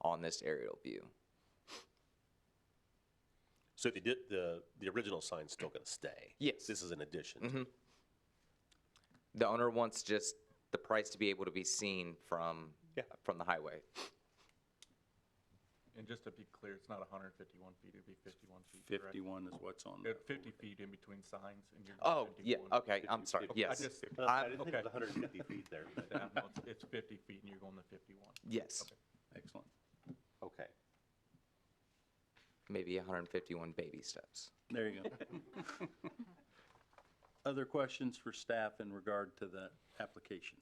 on this aerial view. So they did, the, the original sign's still gonna stay? Yes. This is an addition? to- The owner wants just the price to be able to be seen from, Yeah. from the highway. And just to be clear, it's not hundred and fifty-one feet, it'd be fifty-one feet, correct? 51 is what's on Uh, there. Fifty feet in between signs and you're. Oh, yeah, 51. okay, I'm sorry, fifty. yes. I just, Uh, I didn't think okay. it was 150 feet there. but- yeah, no, it's- it's fifty feet and you're going to fifty-one. Yes, Excellent. Okay. maybe 151 baby steps. There you go. Other questions for staff in regard to the application?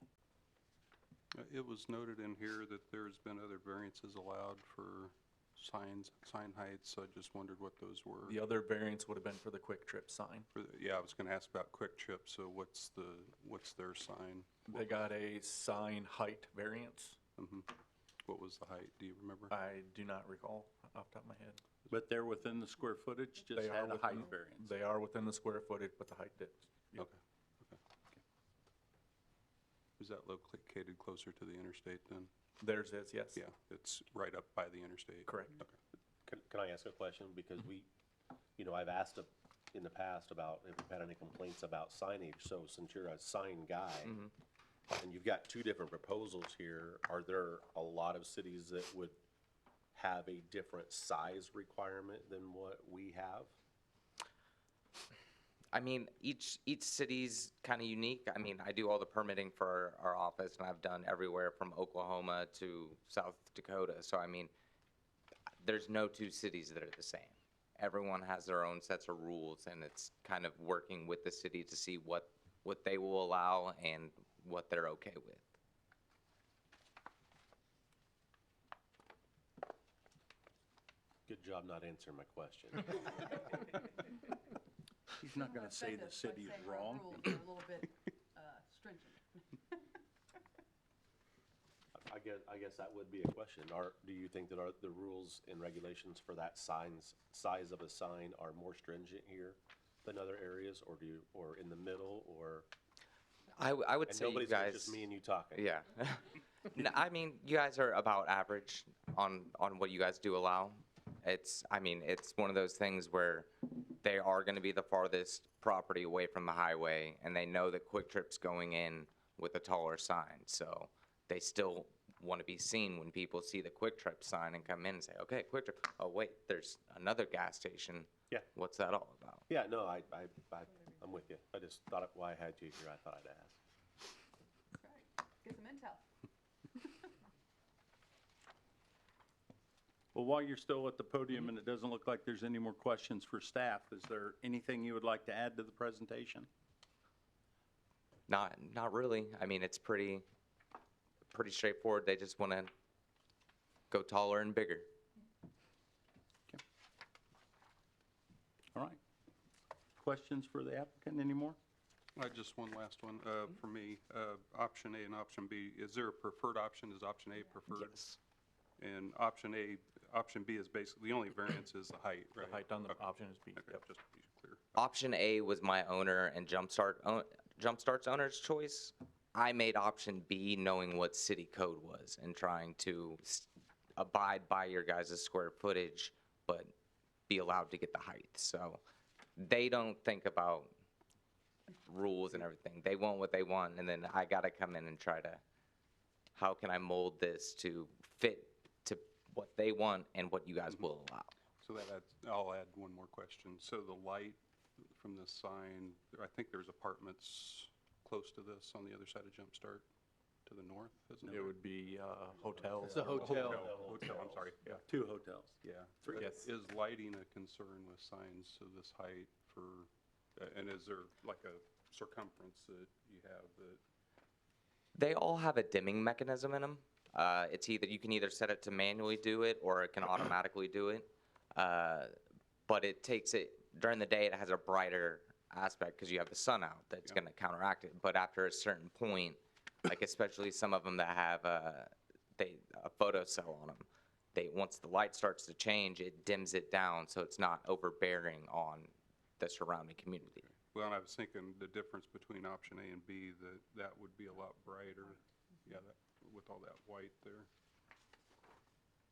Uh, It was noted in here that there's been other variances allowed for signs, sign heights, so I just wondered what those were. The other variance would have been for the quick trip sign. For the- Yeah, I was gonna ask about Quick Trip, so what's the, what's their sign? They got a sign height variance. What was the height, do you remember? I do not recall off the top of my head. But they're within the square footage, just They are had a height within- variance. They are within the square footage, but the height did. Okay. Is that located closer to the interstate then? Theirs is, yes. Yeah, it's right up by the interstate. Correct. Can, can I ask a question? Because we, you know, I've asked a- in the past about if we've had any complaints about signage. So since you're a sign guy, and you've got two different proposals here, are there a lot of cities that would have a different size requirement than what we have? I mean, each each city's kind of unique. I mean, I do all the permitting for our, our office, and I've done everywhere from Oklahoma to South Dakota. So I mean, there's no two cities that are the same. Everyone has their own sets of rules, and it's kind of working with the city to see what what they will allow and what they're okay with. Good job not answering my question. He's not going to say the offensive, city but is saying our wrong. rules are a little bit uh, stringent. I guess, I guess that would be a question. Are, do you think that are, the rules and regulations for that signs, size of a sign are more stringent here than other areas, or do you, or in the middle, or? I, w- I would And say you nobody's, guys. it's just me and you talking. Yeah. No, I mean, you guys are about average on on what you guys do allow. It's I mean, it's one of those things where they are going to be the farthest property away from the highway and they know that Quick Trip's going in with a taller sign. So they still want to be seen when people see the Quick Trip sign and come in and say, "Okay, Quick Trip. Oh, wait, there's another gas station." Yeah. What's that all about? Yeah, no, I, I, I, I'm with you. I just thought it- why I had you here, I thought I'd ask. Right. Get some intel. Well, while you're still at the podium and it doesn't look like there's any more questions for staff, is there anything you would like to add to the presentation? Not not really. I mean, it's pretty pretty straightforward. They just want to go taller and bigger. All right. Questions for the applicant anymore? Uh, Just one last one uh, for me. Uh, Option A and option B, is there a preferred option? Is option A preferred? And option A, option B is basically, the only variance is the height, The right? height on the Okay, option is B, okay, yep. Just to be clear. Option A was my owner and Jumpstart own, Jumpstart's owner's choice. I made option B knowing what city code was and trying to s- abide by your guys' square footage, but be allowed to get the height. So they don't think about rules and everything. They want what they want, and then I got to come in and try to, how can I mold this to fit to what they want and what you guys will allow? So that adds, I'll add one more question. So the light from the sign, I think there's apartments close to this on the other side of Jumpstart to the north, isn't It there? would be uh, hotels. a hotel. Hotel, I'm sorry. Yeah. Two hotels. Yeah. Yes. Is lighting a concern with signs of this height for, uh, and is there like a circumference that you have that, They all have a dimming mechanism in them. Uh, it's either you can either set it to manually do it or it can automatically do it. Uh, but it takes it during the day. It has a brighter aspect because you have the sun out that's going to counteract it. But after a certain point, like especially some of them that have a they a photo cell on them, they once the light starts to change, it dims it down so it's not overbearing on the surrounding community. well, and I was thinking the difference between option A and B, that that would be a lot brighter. Yeah, that, with all that white there.